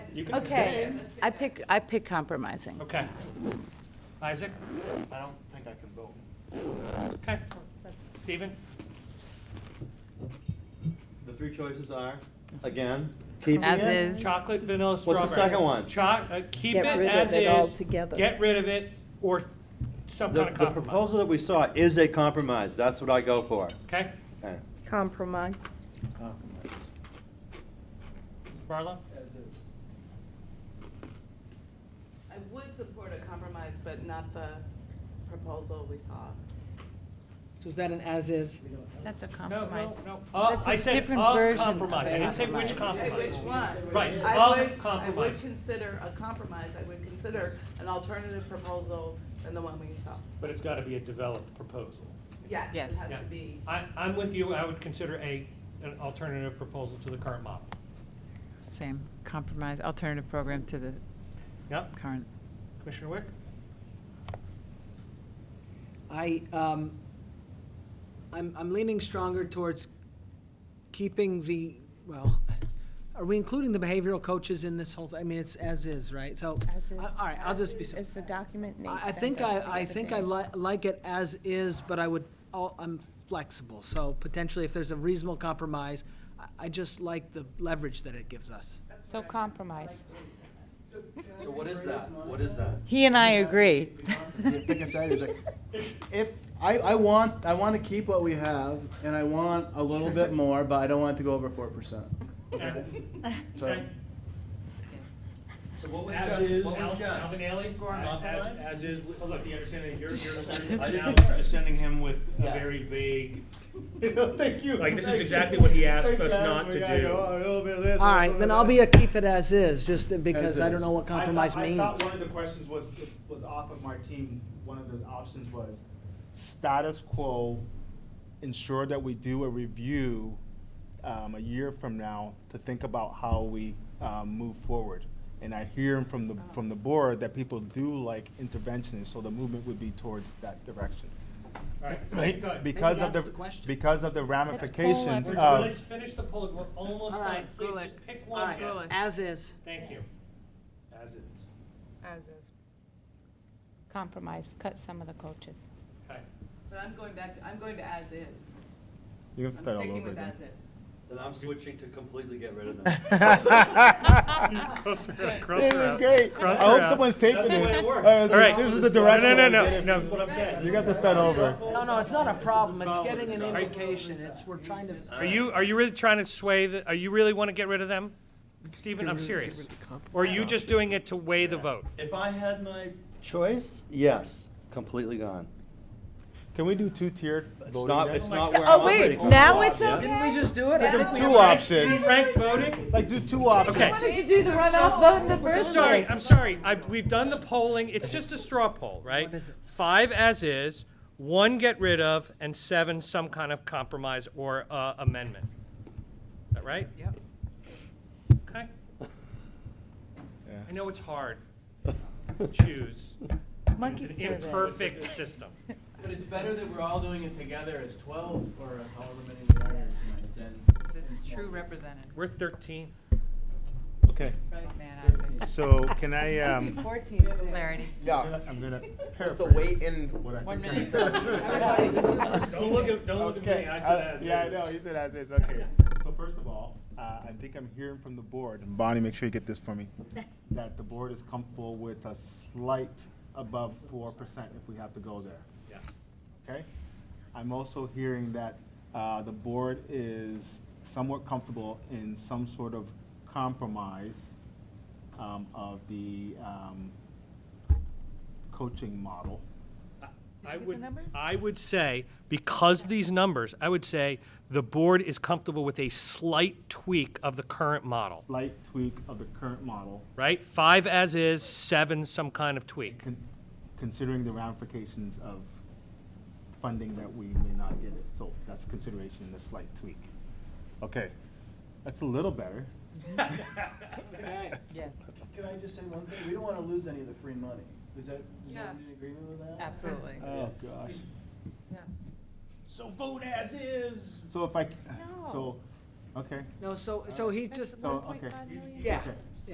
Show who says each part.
Speaker 1: You can
Speaker 2: Okay,
Speaker 1: abstain.
Speaker 2: I pick, I pick compromising.
Speaker 1: Okay. Isaac? I don't think I can vote. Okay. Stephen?
Speaker 3: The three choices are, again, keeping it.
Speaker 2: As is.
Speaker 1: Chocolate, vanilla,
Speaker 3: the
Speaker 1: strawberry.
Speaker 3: second one?
Speaker 1: Cho- uh, keep it
Speaker 4: Get rid of
Speaker 1: as
Speaker 4: it
Speaker 1: is,
Speaker 4: altogether.
Speaker 1: get rid of it, or some
Speaker 3: The,
Speaker 1: kind of
Speaker 3: the
Speaker 1: compromise.
Speaker 3: proposal that we saw is a compromise, that's what I go for.
Speaker 1: Okay,
Speaker 3: Okay.
Speaker 4: Compromise.
Speaker 1: Marla?
Speaker 5: I would support a compromise, but not the proposal we saw.
Speaker 6: So is that an as-is?
Speaker 2: That's a
Speaker 1: No, no,
Speaker 2: compromise.
Speaker 1: no. Uh,
Speaker 2: That's a
Speaker 1: I said
Speaker 2: different
Speaker 1: of
Speaker 2: version of
Speaker 1: compromise. I
Speaker 6: a
Speaker 1: didn't say which
Speaker 2: compromise.
Speaker 5: Say
Speaker 1: compromise.
Speaker 5: Which one?
Speaker 1: Right,
Speaker 5: I
Speaker 1: of
Speaker 5: would- I
Speaker 1: compromise.
Speaker 5: would consider a compromise, I would consider an alternative proposal than the one we saw.
Speaker 1: But it's gotta be a developed proposal.
Speaker 5: Yes, it
Speaker 2: Yes.
Speaker 5: has
Speaker 1: Yeah.
Speaker 5: to be.
Speaker 1: I, I'm with you. I would consider a, an alternative proposal to the current model.
Speaker 2: Same, compromise, alternative program to the
Speaker 1: Yep.
Speaker 2: current.
Speaker 1: Commissioner Wick?
Speaker 6: I, um, I'm, I'm leaning stronger towards keeping the, well, are we including the behavioral coaches in this whole, thi- I mean, it's as-is, right? So,
Speaker 4: As is.
Speaker 6: I- all right, I'll just be, s-
Speaker 4: Is the document Nate
Speaker 6: I I
Speaker 4: sent
Speaker 6: think
Speaker 4: us
Speaker 6: I,
Speaker 4: the
Speaker 6: I
Speaker 4: other
Speaker 6: think
Speaker 4: day.
Speaker 6: I li- like it as-is, but I would, I'll- I'm flexible. So potentially, if there's a reasonable compromise, I- I just like the leverage that it gives us.
Speaker 2: So compromise.
Speaker 3: So what is that? What is that?
Speaker 2: He and I agree.
Speaker 7: The thing inside is like, if, I, I want, I want to keep what we have, and I want a little bit more, but I don't want it to go over four percent.
Speaker 1: Okay.
Speaker 7: So,
Speaker 3: So what was
Speaker 1: As is,
Speaker 3: Jeff's, what
Speaker 1: Al-
Speaker 3: was Jeff's?
Speaker 1: Alvin Ailey?
Speaker 3: Compromise?
Speaker 1: As, as is, with- oh, look, the understanding, you're, you're
Speaker 3: I didn't
Speaker 1: now
Speaker 3: hear.
Speaker 1: just sending him with a
Speaker 3: Yeah.
Speaker 1: very vague,
Speaker 7: Thank you.
Speaker 1: Like, this is Thank you. exactly what he asked us not to do.
Speaker 6: All right, then I'll be a keep it as-is, just because I
Speaker 7: As
Speaker 6: don't
Speaker 7: is.
Speaker 6: know what
Speaker 8: I thought-
Speaker 6: compromise means.
Speaker 8: I thought one of the questions was, was off of Martine, one of the options was status quo, ensure that we do a review um, a year from now to think about how we um, move forward. And I hear from the, from the board that people do like interventionists, so the movement would be towards that direction.
Speaker 1: all right,
Speaker 8: Right?
Speaker 1: good.
Speaker 8: Because of
Speaker 6: that's
Speaker 8: the,
Speaker 6: the question.
Speaker 8: because of the ramifications
Speaker 1: We're-
Speaker 8: of.
Speaker 1: Let's finish the poll, we're almost
Speaker 6: All
Speaker 1: done,
Speaker 6: right.
Speaker 1: please
Speaker 5: Gulick.
Speaker 1: just pick
Speaker 6: All
Speaker 1: one,
Speaker 6: right,
Speaker 1: Jeff.
Speaker 5: Gulick.
Speaker 6: as is.
Speaker 1: Thank you. As is,
Speaker 4: As is.
Speaker 2: Compromise, cut some of the coaches.
Speaker 1: okay.
Speaker 5: But I'm going back to, I'm going to as is.
Speaker 8: You have
Speaker 5: I'm
Speaker 8: to start all
Speaker 5: sticking
Speaker 8: over
Speaker 5: with
Speaker 8: again.
Speaker 5: as is.
Speaker 3: Then I'm switching to completely get rid of that.
Speaker 8: This is great. I hope someone's taping
Speaker 3: That's the way
Speaker 8: this.
Speaker 3: it works.
Speaker 8: Uh,
Speaker 3: All right.
Speaker 8: This is the direction.
Speaker 1: No, no, no, no.
Speaker 8: I'm getting.
Speaker 3: That's what I'm saying.
Speaker 8: You got to start over.
Speaker 6: No, no, it's not a problem, it's getting an
Speaker 3: All right.
Speaker 6: indication, it's, we're trying to.
Speaker 1: Are you, are you really trying to sway, the- are you really want to get rid of them? Stephen, I'm serious. Or are you just doing it to weigh the vote?
Speaker 3: If I had my choice, yes, completely gone.
Speaker 8: Can we do two-tiered
Speaker 3: It's
Speaker 8: voting
Speaker 3: not,
Speaker 8: then?
Speaker 3: it's
Speaker 1: my
Speaker 3: not
Speaker 1: God.
Speaker 3: where
Speaker 2: Oh,
Speaker 3: I'm
Speaker 2: wait,
Speaker 3: operating from.
Speaker 2: now it's
Speaker 3: Yeah.
Speaker 2: okay?
Speaker 6: Didn't we just do it? I think we
Speaker 8: Two options.
Speaker 1: Frank voting?
Speaker 8: Like do two options.
Speaker 1: Okay.
Speaker 2: Wanted to do the runoff vote in the
Speaker 1: I'm
Speaker 2: first
Speaker 1: sorry,
Speaker 2: place.
Speaker 1: I'm sorry. I've, we've done the polling. It's just a straw poll, right?
Speaker 6: What is it?
Speaker 1: Five as is, one get rid of, and seven some kind of compromise or uh, amendment. Is that right?
Speaker 5: Yep.
Speaker 1: Okay.
Speaker 8: Yeah.
Speaker 1: I know it's hard to choose.
Speaker 2: Monkey
Speaker 1: It's an
Speaker 2: survey.
Speaker 1: imperfect system.
Speaker 7: But it's better that we're all doing it together as twelve or however many we are than.
Speaker 2: True representative.
Speaker 1: We're 13.
Speaker 8: Okay.
Speaker 2: Man,
Speaker 8: So can I, um,
Speaker 2: Fourteen. Clarity.
Speaker 7: Yeah.
Speaker 8: I'm gonna
Speaker 7: Put the
Speaker 8: paraphrase.
Speaker 7: weight in
Speaker 8: what I
Speaker 7: one
Speaker 8: think I
Speaker 7: minute.
Speaker 1: Don't look at, don't
Speaker 8: Okay, I- Yeah, I know, you said as is, okay. So first of all, uh, I think I'm hearing from the board, and Bonnie, make sure you get this for me, that the board is comfortable with a slight above four percent if we have to go there.
Speaker 1: Yeah.
Speaker 8: Okay? I'm also hearing that uh, the board is somewhat comfortable in some sort of compromise um, of the um, coaching model.
Speaker 1: I would, I would say, because these numbers, I would say the board is comfortable with a slight tweak of the current model,
Speaker 8: slight tweak of the current model,
Speaker 1: right? Five as is, seven some kind of tweak.
Speaker 8: con- considering the ramifications of funding that we may not get it. So that's consideration in the slight tweak. Okay, that's a little better.
Speaker 2: Yes,
Speaker 7: Can I just say one thing? We don't want to lose any of the free money. Is that, is that
Speaker 5: Yes.
Speaker 7: in agreement with that?
Speaker 2: absolutely.
Speaker 8: Oh, gosh.
Speaker 5: Yes.
Speaker 1: So vote as is.
Speaker 8: So if I, c- so, okay.
Speaker 6: No, so, so he's just,
Speaker 8: So, okay.
Speaker 6: yeah,
Speaker 8: Okay.